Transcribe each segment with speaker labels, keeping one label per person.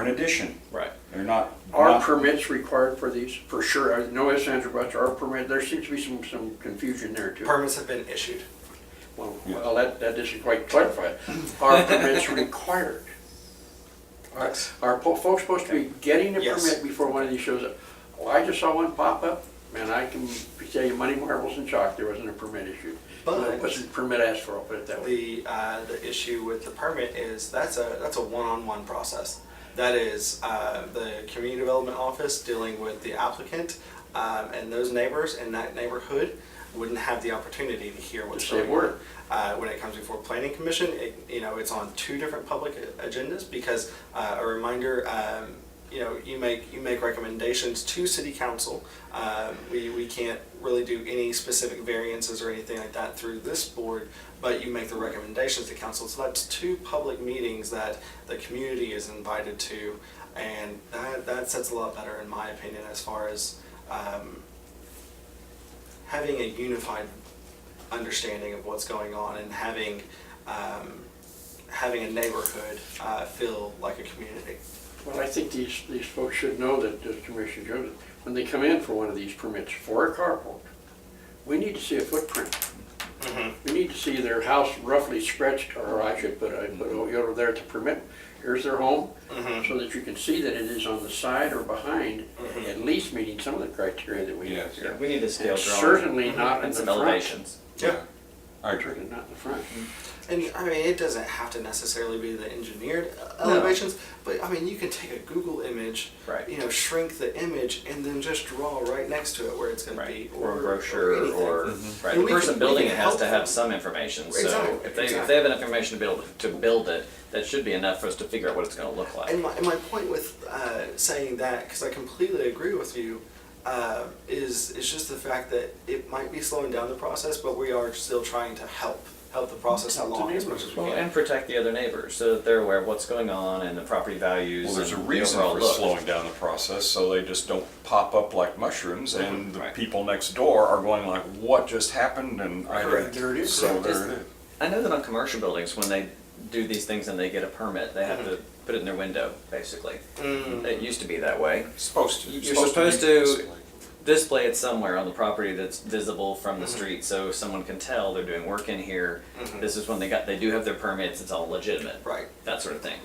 Speaker 1: an addition.
Speaker 2: Right.
Speaker 1: They're not.
Speaker 3: Are
Speaker 1: not-
Speaker 3: permits required for these? For sure, I no ifs, ands, or buts, are permit, there seems to be some, some confusion there too.
Speaker 4: Permits have been issued.
Speaker 3: Well, well, that, that isn't quite clarified. Are permits required? Are, are po- folks supposed to be getting a
Speaker 4: Yes.
Speaker 3: permit before one of these shows up? Well, I just saw one pop up, and I can tell you money marbles and chalk, there wasn't a permit issued.
Speaker 4: But-
Speaker 3: Wasn't permit asked for, I'll put it that
Speaker 4: The,
Speaker 3: way.
Speaker 4: uh, the issue with the permit is that's a, that's a one-on-one process. That is, uh, the community development office dealing with the applicant, um, and those neighbors in that neighborhood wouldn't have the opportunity to hear what's
Speaker 3: Yes, they
Speaker 4: going
Speaker 3: would.
Speaker 4: on. Uh, when it comes before planning commission, it, you know, it's on two different public agendas because, uh, a reminder, um, you know, you make, you make recommendations to city council. Um, we, we can't really do any specific variances or anything like that through this board, but you make the recommendations to council. So that's two public meetings that the community is invited to. And that, that sets a lot better in my opinion as far as, um, having a unified understanding of what's going on and having um, having a neighborhood uh, feel like a community.
Speaker 3: Well, I think these, these folks should know that, as Commissioner Jones, when they come in for one of these permits for a carport, we need to see a footprint.
Speaker 2: Mm-hmm,
Speaker 3: We need to see their house roughly stretched, or I should put, I put over there to permit, here's their home,
Speaker 2: mm-hmm.
Speaker 3: so that you can see that it is on the side or behind, at least meeting some of the criteria that we have
Speaker 1: Yes.
Speaker 3: here.
Speaker 2: We need a Mm-hmm. scale
Speaker 3: And
Speaker 2: drawing
Speaker 3: certainly not in
Speaker 2: and
Speaker 3: the
Speaker 2: some
Speaker 3: front.
Speaker 2: elevations.
Speaker 1: Yeah, I agree.
Speaker 3: And Not in the front.
Speaker 4: And I mean, it doesn't have to necessarily be the engineered elevations, but I mean, you can take a Google image,
Speaker 2: Right.
Speaker 4: you know, shrink the image, and then just draw right next to it where it's going
Speaker 2: Right,
Speaker 4: to be,
Speaker 2: or a brochure,
Speaker 4: anything.
Speaker 2: or, right,
Speaker 4: And
Speaker 2: the
Speaker 4: we can-
Speaker 2: person
Speaker 4: we
Speaker 2: building
Speaker 4: can
Speaker 2: it has
Speaker 4: help
Speaker 2: to
Speaker 4: them.
Speaker 2: have some information, so
Speaker 4: Exactly,
Speaker 2: if they, if
Speaker 4: exactly.
Speaker 2: they have enough information to be able to build it, that should be enough for us to figure out what it's gonna look like.
Speaker 4: And my, and my point with uh, saying that, because I completely agree with you, uh, is is just the fact that it might be slowing down the process, but we are still trying to help help the process
Speaker 3: Help the
Speaker 4: along as much as we
Speaker 2: Well,
Speaker 4: can.
Speaker 2: and protect the other neighbors, so that they're aware of what's going on and the property values
Speaker 1: Well, there's a
Speaker 2: and the
Speaker 1: reason
Speaker 2: overall
Speaker 1: for
Speaker 2: look.
Speaker 1: slowing down the process, so they just don't pop up like mushrooms, and the
Speaker 2: Right.
Speaker 1: people next door are going like, "What just happened?" And I
Speaker 3: Correct. There it is.
Speaker 1: So
Speaker 3: Correct.
Speaker 1: there it is.
Speaker 2: I know that on commercial buildings, when they do these things and they get a permit, they have to
Speaker 4: Mm-hmm.
Speaker 2: put it in their window, basically.
Speaker 4: Mm.
Speaker 2: It used to be that way.
Speaker 1: Supposed to.
Speaker 2: You're
Speaker 1: be-
Speaker 2: supposed Display it somewhere on the property that's visible from the street, so someone can tell they're doing work in here. This is when they got, they do have their permits, it's all legitimate.
Speaker 4: Right.
Speaker 2: That sort of thing.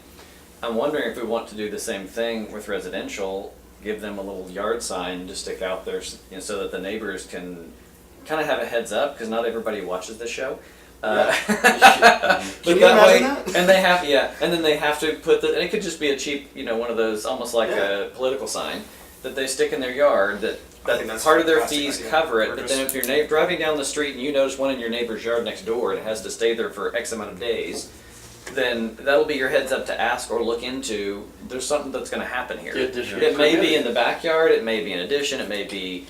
Speaker 2: I'm wondering if we want to do the same thing with residential, give them a little yard sign to stick out there, s- you know, so that the neighbors can kind of have a heads up, because not everybody watches the show. Uh,
Speaker 4: Can
Speaker 2: But
Speaker 4: you
Speaker 2: that way,
Speaker 4: imagine that?
Speaker 2: and they have yeah, and then they have to put the. And it could just be a cheap, you know, one of those almost like a political sign that they stick in their yard that.
Speaker 4: I think
Speaker 2: That
Speaker 4: that's
Speaker 2: part of their
Speaker 4: fantastic
Speaker 2: fees
Speaker 4: idea.
Speaker 2: cover it,
Speaker 4: We're
Speaker 2: but
Speaker 4: just-
Speaker 2: then if you're na- driving down the street and you notice one in your neighbor's yard next door and it has to stay there for X amount of days, then that'll be your heads up to ask or look into. There's something that's going to happen here.
Speaker 3: Did this
Speaker 2: it may be
Speaker 3: permitted?
Speaker 2: in the backyard, it may be an addition, it may be
Speaker 1: In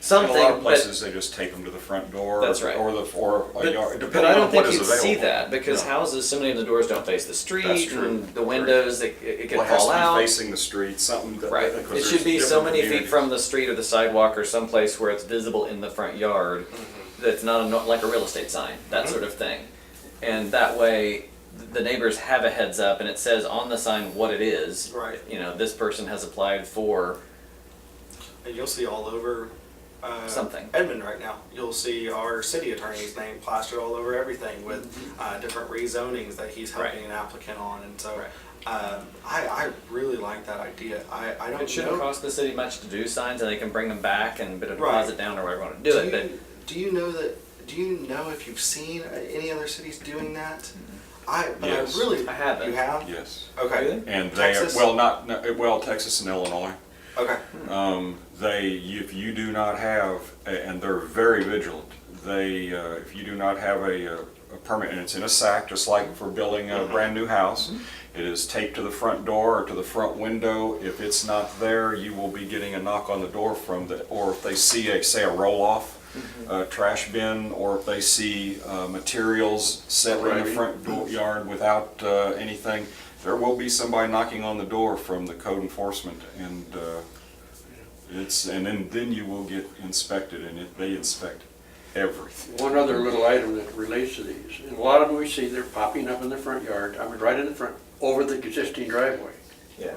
Speaker 2: something.
Speaker 1: a lot of
Speaker 2: but-
Speaker 1: places, they just take them to the front door.
Speaker 2: That's right.
Speaker 1: Or the, or a yard,
Speaker 2: But, but
Speaker 1: depending
Speaker 2: I
Speaker 1: on
Speaker 2: don't
Speaker 1: what
Speaker 2: think
Speaker 1: is
Speaker 2: you'd see
Speaker 1: available.
Speaker 2: that because
Speaker 1: No.
Speaker 2: houses, so many of the doors don't face the street
Speaker 1: That's true.
Speaker 2: and the windows, it, it could
Speaker 1: Well, it has
Speaker 2: fall
Speaker 1: to be
Speaker 2: out.
Speaker 1: Facing the street, something. that-
Speaker 2: right.
Speaker 1: because
Speaker 2: It
Speaker 1: there's
Speaker 2: should be so
Speaker 1: different
Speaker 2: many feet
Speaker 1: communities.
Speaker 2: from the street or the sidewalk or someplace where it's visible in the front yard
Speaker 1: Mm-hmm.
Speaker 2: that's not a, no- like a real estate sign, that sort of thing. And that way, th- the neighbors have a heads up and it says on the sign what it is.
Speaker 4: Right.
Speaker 2: You know, this person has applied for
Speaker 4: And you'll see all over uh,
Speaker 2: Something.
Speaker 4: Edmond right now. You'll see our city attorney's name plastered all over everything with uh, different rezonings that he's helping
Speaker 2: Mm-hmm. Right.
Speaker 4: an applicant on, and so.
Speaker 2: Right.
Speaker 4: Um, I, I really like that idea. I, I don't
Speaker 2: It shouldn't
Speaker 4: know.
Speaker 2: cost the city much to do signs, and they can bring them back and bit of
Speaker 4: Right.
Speaker 2: deposit down or whatever you want to do,
Speaker 4: you,
Speaker 2: it. But
Speaker 4: do you know that? Do you know if you've seen uh, any other cities doing that? I but
Speaker 1: Yes.
Speaker 4: I really
Speaker 2: I haven't.
Speaker 4: You have?
Speaker 1: Yes.
Speaker 4: Okay.
Speaker 1: And they,
Speaker 4: Texas?
Speaker 1: well, not, no, well, Texas and Illinois.
Speaker 4: Okay.
Speaker 1: Um, they, if you do not have, and they're very vigilant, they, uh, if you do not have a, uh, a permit, and it's in a sack, just like for building a brand new house, it is taped to the front door or to the front window. If it's not there, you will be getting a knock on the door from the, or if they see a, say, a roll-off, uh, trash bin, or if they see, uh, materials set in the
Speaker 3: Right.
Speaker 1: front door yard without, uh, anything, there will be somebody knocking on the door from the code enforcement and, uh, it's, and then, then you will get inspected, and it, they inspect everything.
Speaker 3: One other little item that relates to these, and a lot of them we see, they're popping up in the front yard, I mean, right in the front, over the existing driveway.
Speaker 2: yeah.